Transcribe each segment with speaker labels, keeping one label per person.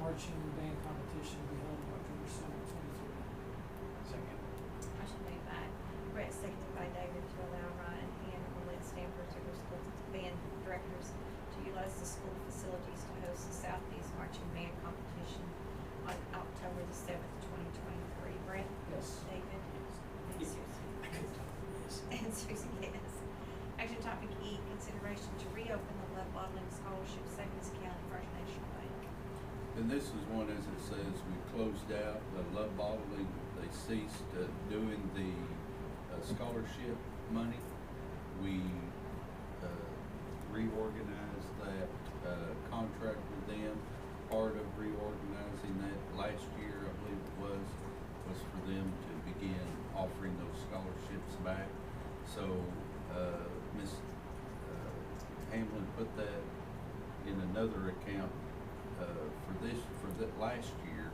Speaker 1: marching band competition to be held on October seventh, twenty-three.
Speaker 2: Second.
Speaker 3: I should move that. Brett, seconded by David, to allow Ryan and Willett Stanford River School Band Directors to utilize the school facilities to host the Southeast Marching Band Competition on October the seventh, twenty twenty-three. Brett?
Speaker 1: Yes.
Speaker 3: David? And
Speaker 1: Yes.
Speaker 3: Susie?
Speaker 1: I could talk, yes.
Speaker 3: And Susie, yes. Action topic E, consideration to reopen the Love Bottling Scholarship Savings Account at First National Bank.
Speaker 4: And this is one, as it says, we closed out the love bottling, they ceased uh, doing the uh, scholarship money. We uh, reorganized that uh, contract with them. Part of reorganizing that last year, I believe it was, was for them to begin offering those scholarships back. So, uh, Ms. uh, Hamlin put that in another account uh, for this, for the last year.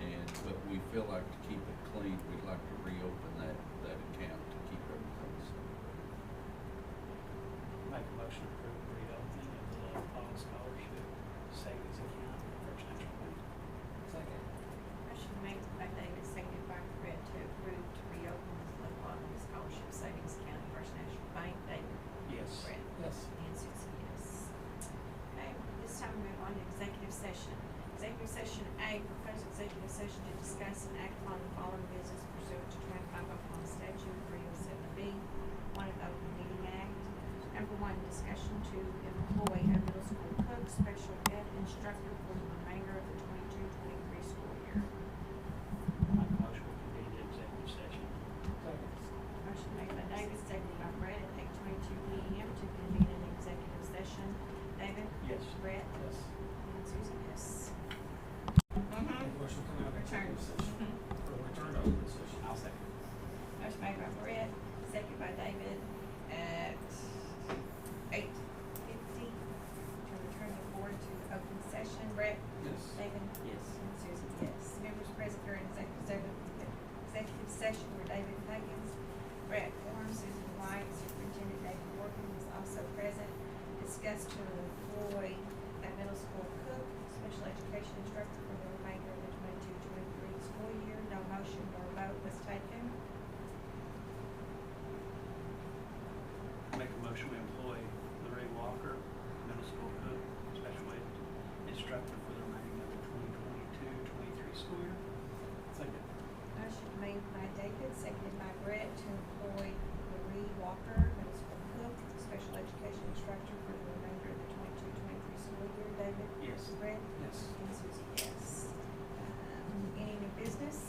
Speaker 4: And, but we feel like to keep it clean, we'd like to reopen that, that account to keep everything safe.
Speaker 2: Make a motion to approve the reopening of the Love Paul Scholarship Savings Account at First National Bank.
Speaker 1: Second.
Speaker 3: Motion made by David, seconded by Brett to approve to reopen the flood water scholarship savings account at First National Bank. David?
Speaker 2: Yes.
Speaker 3: Brett?
Speaker 1: Yes.
Speaker 3: And Susie, yes. Okay, this time we move on to executive session. Executive session A, proposed executive session to discuss and act upon the following business pursuant to twenty-five Oklahoma statute three oh seven B, one of the Open Meeting Act. Number one, discussion to employ a middle school cook, special ed instructor for the remainder of the 22-23 school year.
Speaker 2: Make a motion to convene the executive session.
Speaker 1: Second.
Speaker 3: Motion made by David, seconded by Brett, at eight twenty-two P M to convene an executive session. David?
Speaker 2: Yes.
Speaker 3: Brett?
Speaker 1: Yes.
Speaker 3: And Susie, yes.
Speaker 1: Motion come out of
Speaker 3: Return.
Speaker 1: executive Mm-hmm. session, or return to open session.
Speaker 2: I'll second.
Speaker 3: Motion made by Brett, seconded by David at eight fifty to return the board to open session. Brett?
Speaker 1: Yes.
Speaker 3: David?
Speaker 2: Yes.
Speaker 3: And Susie, yes. Members present during executive se- executive session were David Huggins, Brett Warren, Susan White, Superintendent David Morgan was also present. Discussed to employ a middle school cook, special education instructor for the remainder of the 22-23 school year. No motion nor vote was taken.
Speaker 2: Make a motion to employ Larry Walker, middle school cook, special ed instructor for the remaining of the 2022-23 school year. Second.
Speaker 3: Motion made by David, seconded by Brett to employ Marie Walker, middle school cook, special education instructor for the remainder of the 22-23 school year. David?
Speaker 2: Yes.
Speaker 3: Brett?
Speaker 1: Yes.
Speaker 3: And Susie, yes. Um, Any new business?